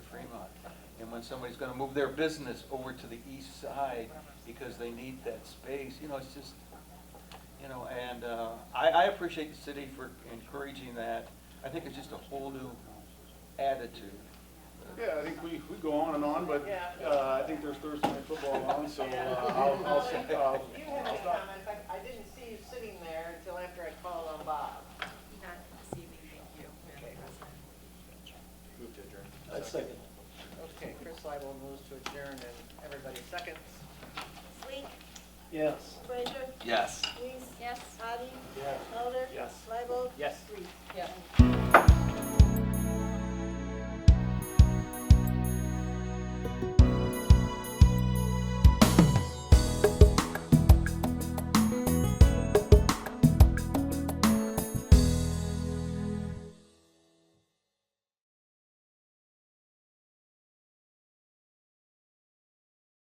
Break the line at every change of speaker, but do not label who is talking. when somebody's gonna move their business over to the east side because they need that space, you know, it's just, you know, and, uh, I, I appreciate the city for encouraging that. I think it's just a whole new attitude.
Yeah, I think we, we go on and on, but, uh, I think there's Thursday night football on, so, uh, I'll, I'll, I'll,
You have
I'll
any
stop.
comments? I, I didn't see you sitting there until after I called on Bob.
Not this evening, thank you, Madam President.
Move to adjourn.
I second.
Okay, Chris Leibel moves to adjourn and everybody seconds.
Sweet,
Yes.
Frazier,
Yes.
Reese,
Yes.
Hadi,
Yes.
Mulder,
Yes.
Leibold,
Yes.
Reese.
Yes.